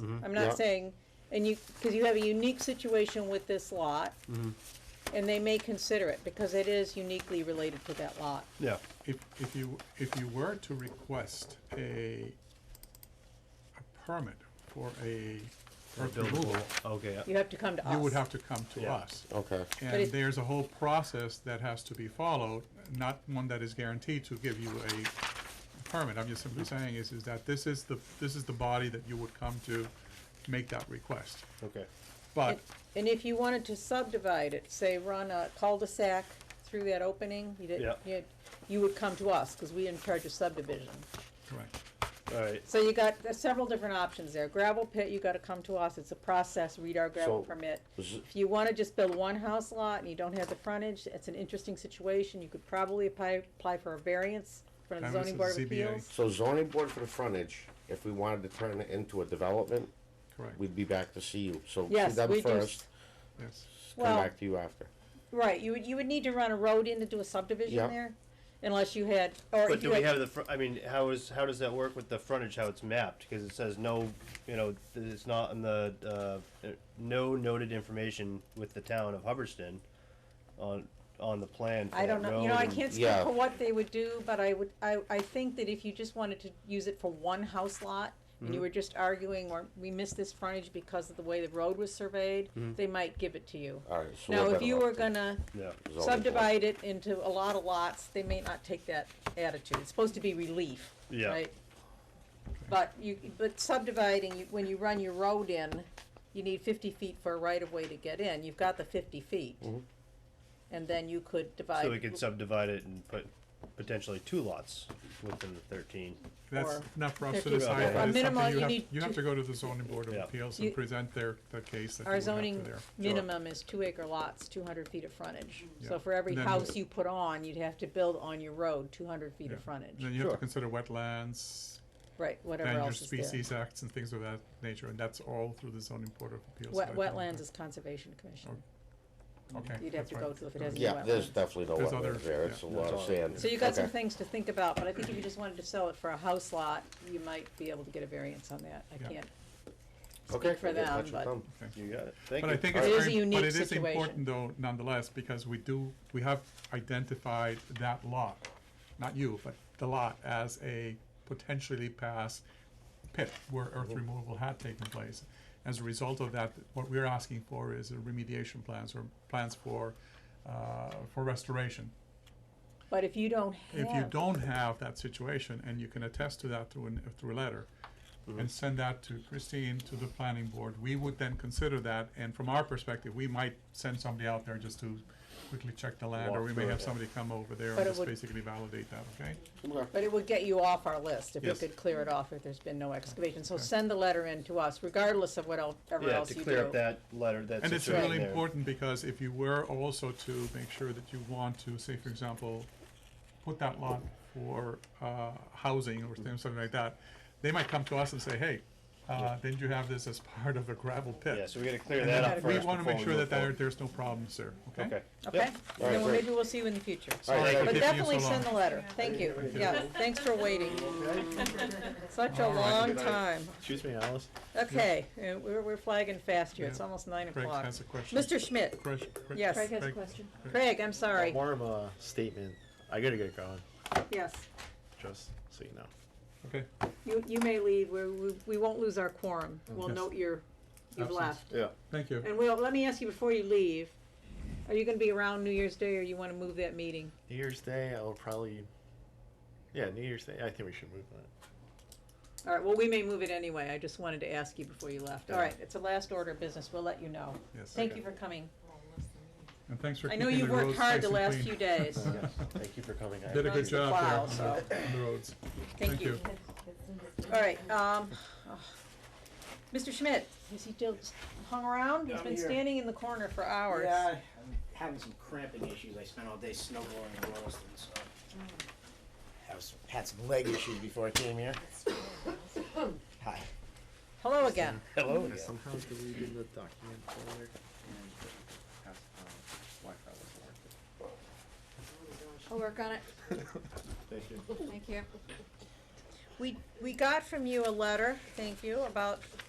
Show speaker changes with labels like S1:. S1: Mm-hmm.
S2: I'm not saying, and you, because you have a unique situation with this lot.
S1: Mm-hmm.
S2: And they may consider it because it is uniquely related to that lot.
S3: Yeah,
S1: If, if you, if you were to request a, a permit for a earth removal,
S3: okay,
S2: You have to come to us.
S1: you would have to come to
S3: Yeah.
S1: us.
S4: Okay.
S2: But
S1: And
S2: it-
S1: there's a whole process that has to be followed, not one that is guaranteed to give you a permit. I'm just simply saying is, is that this is the, this is the body that you would come to make that request.
S3: okay.
S1: But
S2: And if you wanted to subdivide it, say run a cul-de-sac through that opening, you didn't,
S3: Yeah.
S2: you, you would come to us, cause we in charge of subdivision.
S1: Correct.
S3: All right.
S2: So you got there's several different options there. Gravel pit, you gotta come to us, it's a process, read our gravel
S4: So,
S2: permit.
S4: z-
S2: If you wanna just build one house lot and you don't have the frontage, it's an interesting situation, you could probably apply, apply for a variance from the
S1: Time
S2: zoning
S1: versus
S2: board of
S1: ZBA.
S2: appeals.
S4: So zoning board for the frontage, if we wanted to turn it into a development,
S1: Correct,
S4: we'd be back to see you. So see
S2: Yes, we
S4: them
S2: do
S4: first,
S1: yes.
S4: come
S2: Well-
S4: back to you after.
S2: Right, you would, you would need to run a road in to do a subdivision
S4: Yeah.
S2: there, unless you had, or
S3: But
S2: if
S3: do
S2: you
S3: we
S2: had,
S3: have the, fr- I mean, how is, how does that work with the frontage, how it's mapped? Because it says no, you know, th- it's not in the, uh, uh, no noted information with the town of Hubbardston on, on the plan for
S2: I don't
S3: that
S2: know, you know, I
S3: road and-
S2: can't speak
S4: Yeah.
S2: for what they would do, but I would, I, I think that if you just wanted to use it for one house lot, and you were just arguing, or we missed this frontage because of the way the road was surveyed, they might give it to you.
S4: All right, so.
S2: Now,
S4: we're
S2: if
S4: better
S2: you
S4: off
S2: were
S4: to-
S2: gonna
S3: Yeah,
S4: zoning board.
S2: subdivide it into a lot of lots, they may not take that attitude, it's supposed to be relief,
S3: Yeah.
S2: right? But you, but subdividing, you- when you run your road in, you need fifty feet for a right of way to get in, you've got the fifty feet. And then you could divide.
S3: so we could subdivide it and put potentially two lots within the thirteen.
S1: That's
S2: Or
S1: not for us to
S2: 50
S1: decide,
S3: Yeah.
S1: but it's
S2: Minimal,
S1: something
S2: you
S1: you have,
S2: need
S1: you have
S2: to-
S1: to go to the zoning board of
S3: Yeah.
S1: appeals
S2: You-
S1: and present their, the case that you
S2: Our
S1: would have to
S2: zoning
S1: there.
S2: minimum is two acre lots, two hundred feet of frontage. So
S1: Yeah.
S2: for every
S1: Then-
S2: house you put on, you'd have to build on your road two hundred feet of
S1: Yeah.
S2: frontage,
S1: Then you have to
S3: Sure.
S1: consider wetlands,
S2: right, whatever
S1: endangered
S2: else is there.
S1: species acts and things of that nature, and that's all through the zoning board of appeals.
S2: Wet,
S1: that I can-
S2: wetlands is conservation commission,
S1: Okay.
S2: you'd have
S1: that's
S2: to
S1: fine.
S2: go to if it has any
S4: Yeah, there's
S2: wetlands.
S4: definitely no
S1: There's other-
S4: wetlands there.
S1: yeah.
S4: It's a lot of
S3: all-
S4: sand.
S2: So you got some
S4: Okay.
S2: things to think about, but I think if you just wanted to sell it for a house lot, you might be able to get a variance on that, I
S1: Yeah.
S2: can't.
S4: Okay,
S2: for
S4: we'll get in
S2: them,
S4: touch with
S2: but-
S4: them.
S3: You got it, thank you.
S1: But I think
S2: It
S1: it's
S2: is a
S1: very, but
S2: unique
S1: it is
S2: situation.
S1: important though nonetheless, because we do, we have identified that lot, not you, but the lot as a potentially past pit where earth removal had taken place. As a result of that, what we're asking for is a remediation plans or plans for, uh, for restoration.
S2: But if you don't have.
S1: If you don't have that situation, and you can attest to that through an, through a letter,
S3: Mm-hmm.
S1: and send that to Christine, to the planning board, we would then consider that, and from our perspective, we might send somebody out there just to quickly check the land,
S3: Walk
S1: or we may
S3: through
S1: have
S3: it.
S1: somebody come over there
S2: But
S1: and
S2: it
S1: just
S2: would-
S1: basically validate that, okay?
S2: But it would get you off our list if we
S1: Yes.
S2: could clear it off if there's been no excavation, so
S1: Okay.
S2: send the letter in to us regardless of what el- ever
S3: Yeah,
S2: else
S3: to
S2: you do.
S3: clear up that letter, that
S1: And it's
S3: situation
S1: really
S3: there.
S1: important, because if you were also to make sure that you want to, say, for example, put that lot for, uh, housing or
S3: Mm-hmm.
S1: things, something like that, they might come to us and say, hey, uh, didn't you have this as part of a gravel pit?
S3: Yeah, so we gotta clear
S1: And
S3: that
S1: then
S3: up
S1: we
S3: first
S1: wanna
S3: before
S1: make
S3: we
S1: sure
S3: move
S1: that there,
S3: forward.
S1: there's no problems there, okay?
S3: Okay.
S2: Okay,
S4: All right,
S2: then well,
S4: great.
S2: maybe we'll see you in the future.
S4: All right,
S1: Thank
S4: thank
S2: But
S4: you.
S1: you. Taking you
S2: definitely
S1: so long.
S2: send the letter, thank you, yeah, thanks for waiting. Such a
S1: All right.
S2: long time,
S3: Excuse me, Alice?
S2: okay, uh, we're, we're flagging fast here, it's
S1: Yeah.
S2: almost nine
S1: Craig
S2: o'clock.
S1: has a question.
S2: Mr. Schmidt,
S1: Craig- Craig-
S2: Yes.
S5: Craig has a
S1: Craig-
S5: question.
S2: Craig, I'm sorry,
S6: More of a uh, statement. I gotta get going,
S2: yes,
S6: just so you know.
S1: Okay,
S2: you, you may leave, we, we, we won't lose our quorum, we'll
S1: Yes.
S2: note your, you've
S1: Absence.
S2: left.
S6: Yeah.
S1: thank you.
S2: And Will, let me ask you before you leave, are you gonna be around New Year's Day or you wanna move that meeting?
S6: New Year's Day, I'll probably. Yeah, New Year's Day. I think we should move that.
S2: All right, well, we may move it anyway, I just wanted to ask you before you left. All
S6: Yeah.
S2: right, it's a last order of business, we'll let you know.
S1: Yes.
S2: Thank you for coming.
S1: And thanks for
S2: I
S1: keeping
S2: know
S1: the roads
S2: you've worked hard the
S1: nice
S2: last
S1: and clean.
S2: few days.
S6: Thank you for coming. I
S1: Did a
S2: Runs
S1: good
S2: the
S1: job there
S2: plow,
S1: on the- on the roads.
S2: Thank you. All right, um, oh. Mr. Schmidt, has he still hung around? He's
S7: I'm
S2: been
S7: here.
S2: standing in the corner for hours.
S7: Yeah, I'm having some cramping issues. I spent all day snowballing in Rolliston, so. I was, had some leg issues before I came here. Hi.
S2: Hello again.
S3: Hello again.
S6: Somehow deleted the document folder.
S3: uh,
S5: I'll work on it.
S6: Thank you.
S5: Thank you.
S2: We, we got from you a letter, thank you, about uh,